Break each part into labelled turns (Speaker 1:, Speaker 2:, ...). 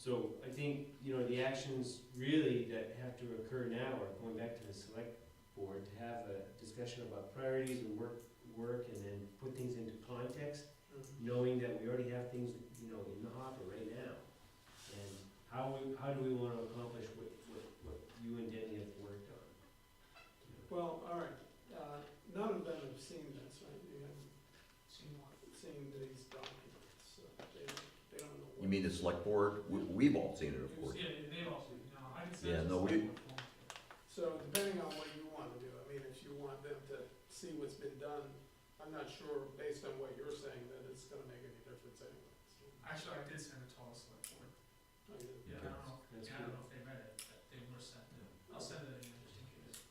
Speaker 1: So I think, you know, the actions really that have to occur now are going back to the select board to have a discussion about priorities and work, work and then put things into context,
Speaker 2: Mm-hmm.
Speaker 1: knowing that we already have things, you know, in the hopper right now. And how, we- how do we want to accomplish what, what, what you and Danny have worked on? You know,
Speaker 2: Well, all right, uh, none of them have seen this, right? They haven't
Speaker 3: Seen what?
Speaker 2: seen these documents, so they, they don't know. what-
Speaker 4: You mean the select board? We- We've all seen it, of course.
Speaker 3: Yeah, they've all seen, it. no, I didn't
Speaker 4: Yeah,
Speaker 3: send
Speaker 4: no, we-
Speaker 2: So depending on what you want to do, I mean, if you want them to see what's been done, I'm not sure, based on what you're saying, that it's gonna make any difference anyway. so,
Speaker 3: Actually, I did send it to all the select board.
Speaker 2: I mean,
Speaker 3: Yeah, I don't know,
Speaker 1: That's
Speaker 3: yeah, I don't
Speaker 1: good.
Speaker 3: know if they read it, but they were sent it. I'll send it again just in case.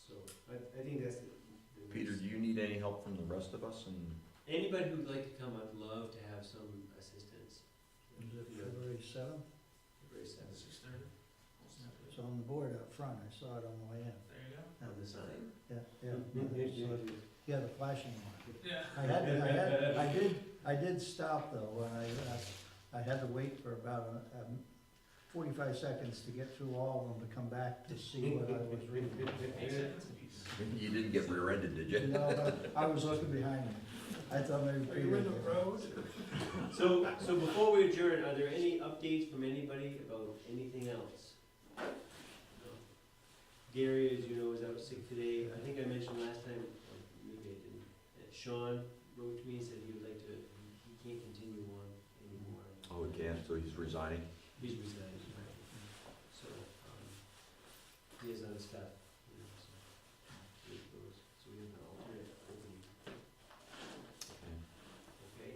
Speaker 1: So I, I think that's the. the
Speaker 4: Peter, do you need any help from the rest of us? And
Speaker 1: Anybody who'd like to come, I'd love to have some assistance.
Speaker 5: Is it
Speaker 1: Yeah,
Speaker 5: February seventh?
Speaker 1: Very sad.
Speaker 3: Six thirty?
Speaker 5: It's on the board up front, I saw it on the way in.
Speaker 3: There you go.
Speaker 1: On the sign.
Speaker 5: Yeah,
Speaker 1: Mm-hmm.
Speaker 5: yeah. So, Yeah, the flashing one.
Speaker 3: Yeah.
Speaker 5: I had, I had, I did, I did stop though, when I, uh, I had to wait for about uh, um, forty-five seconds to get through all of them to come back to see what I was reading.
Speaker 3: Eight seconds apiece.
Speaker 4: you didn't get rear-ended, did you?
Speaker 5: No, but I was looking behind me. I thought maybe.
Speaker 2: Are you in the
Speaker 5: Peter-
Speaker 2: road?
Speaker 1: So, so before we adjourn, are there any updates from anybody about anything else? No. Gary, as you know, is out sick today. I think I mentioned last time, or maybe I didn't, that Sean wrote to me and said he would like to, he can't continue on anymore.
Speaker 4: Oh, again, so he's resigning?
Speaker 1: He's resigned, so, um, he has other stuff, you know, so. it goes. So we have an alternate opening, okay?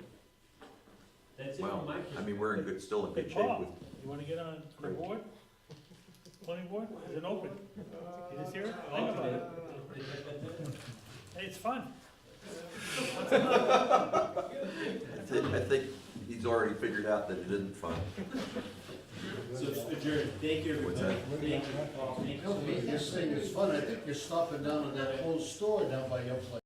Speaker 1: That's it
Speaker 4: Well,
Speaker 1: from my
Speaker 4: I
Speaker 1: perspective.
Speaker 4: mean, we're in good, still in good
Speaker 6: Hey,
Speaker 4: shape
Speaker 6: Paul.
Speaker 4: with,
Speaker 6: You wanna get on the board? Planning board? Is it open?
Speaker 2: Uh,
Speaker 6: Is it here?
Speaker 2: uh,
Speaker 6: Think about it.
Speaker 2: uh,
Speaker 6: Hey, it's fun.
Speaker 2: uh,
Speaker 4: I think, I think he's already figured out that it isn't fun.
Speaker 1: So it's adjourned, thank you
Speaker 4: What's
Speaker 1: everybody.
Speaker 4: that?
Speaker 1: Thank you, Paul, thank you.
Speaker 7: This thing is fun, I think you're stopping down in that old store down by your place.